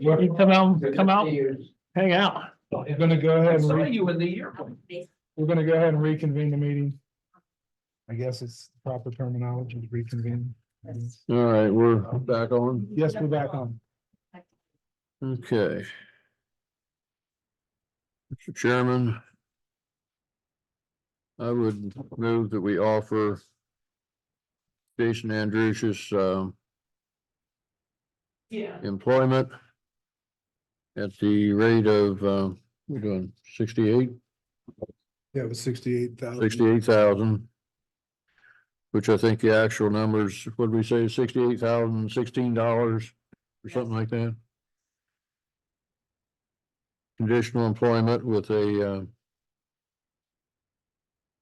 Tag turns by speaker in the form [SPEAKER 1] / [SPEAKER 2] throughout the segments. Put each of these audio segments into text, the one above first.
[SPEAKER 1] You can come out, come out, hang out.
[SPEAKER 2] We're gonna go ahead and,
[SPEAKER 3] Saw
[SPEAKER 2] re-
[SPEAKER 3] you in the airplane.
[SPEAKER 2] we're gonna go ahead and reconvene the meeting. I guess it's proper terminology to reconvene.
[SPEAKER 4] All right, we're back on.
[SPEAKER 2] Yes, we're back on.
[SPEAKER 4] Okay. Mr. Chairman. I would move that we offer Jason Andrews's um
[SPEAKER 3] Yeah.
[SPEAKER 4] employment at the rate of, um, we're doing sixty-eight,
[SPEAKER 2] Yeah, it was sixty-eight thousand.
[SPEAKER 4] sixty-eight thousand, which I think the actual numbers, what did we say, sixty-eight thousand, sixteen dollars or something like that? Conditional employment with a uh,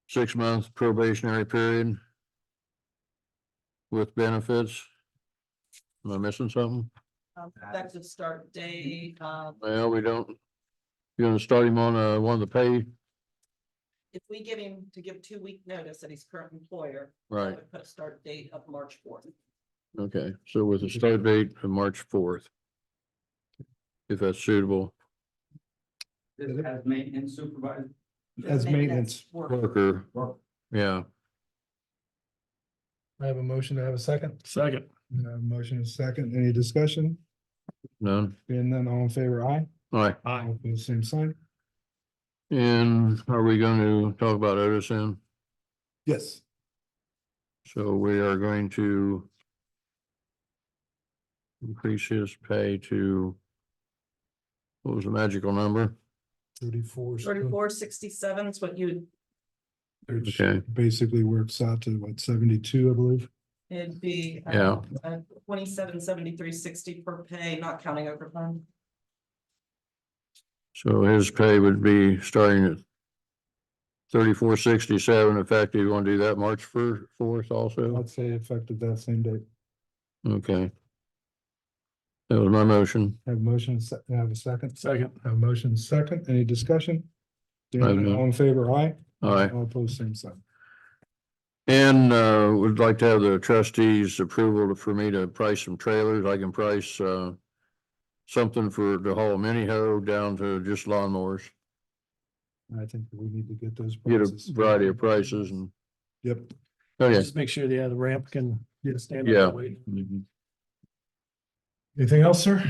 [SPEAKER 4] six-month probationary period with benefits. Am I missing something?
[SPEAKER 5] Um, Effective start date, um,
[SPEAKER 4] Well, we don't, you're gonna start him on uh, one of the pay,
[SPEAKER 5] if we give him to give two week notice at his current employer. I
[SPEAKER 4] right?
[SPEAKER 5] would Put a start date of March fourth.
[SPEAKER 4] Okay, so with a start date of March fourth. If that's suitable,
[SPEAKER 3] This has maintenance supervisor.
[SPEAKER 2] As maintenance.
[SPEAKER 4] worker, yeah,
[SPEAKER 2] I have a motion to have a second.
[SPEAKER 1] Second.
[SPEAKER 2] Uh, motion is second. Any discussion?
[SPEAKER 4] none,
[SPEAKER 2] Being none, all in favor, aye.
[SPEAKER 4] all right.
[SPEAKER 2] All opposed, Same sign.
[SPEAKER 4] And are we going to talk about Edison?
[SPEAKER 2] Yes.
[SPEAKER 4] So we are going to increase his pay to what was the magical number?
[SPEAKER 2] Thirty-four.
[SPEAKER 5] Thirty-four sixty-seven is what you,
[SPEAKER 2] Which
[SPEAKER 4] Okay.
[SPEAKER 2] basically works out to what, seventy-two, I believe?
[SPEAKER 5] it'd be. uh,
[SPEAKER 4] Yeah.
[SPEAKER 5] uh, Twenty-seven seventy-three sixty per pay, not counting overtime.
[SPEAKER 4] So his pay would be starting at thirty-four sixty-seven effective. You want to do that March first, fourth also?
[SPEAKER 2] I'd say effective that same date.
[SPEAKER 4] Okay. That was my motion.
[SPEAKER 2] Have a motion, se- have a second.
[SPEAKER 1] Second.
[SPEAKER 2] Have a motion second, any discussion? Being
[SPEAKER 4] I
[SPEAKER 2] none,
[SPEAKER 4] don't know.
[SPEAKER 2] All in favor, aye?
[SPEAKER 4] All right.
[SPEAKER 2] All opposed, same sign.
[SPEAKER 4] And uh, would like to have the trustees approval to- for me to price some trailers. I can price uh. Something for to haul a mini hoe down to just lawnmowers,
[SPEAKER 2] I think we need to get those.
[SPEAKER 4] get a
[SPEAKER 2] prices.
[SPEAKER 4] variety of prices and, oh,
[SPEAKER 2] Yep,
[SPEAKER 4] okay.
[SPEAKER 1] Just make sure the other ramp can stand. up
[SPEAKER 4] Yeah.
[SPEAKER 1] and wait.
[SPEAKER 2] anything else, sir?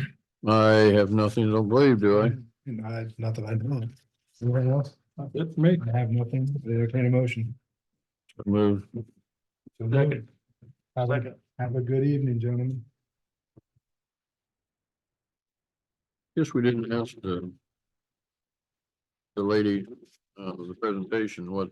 [SPEAKER 4] I have nothing, to don't believe, do I?
[SPEAKER 2] And I, not that I know of. Anyone else?
[SPEAKER 1] That's me.
[SPEAKER 2] I have nothing, entertain a motion.
[SPEAKER 4] Move.
[SPEAKER 2] So moved. Have a, have a good evening, gentlemen.
[SPEAKER 4] Guess we didn't ask the. The lady, uh, the presentation, what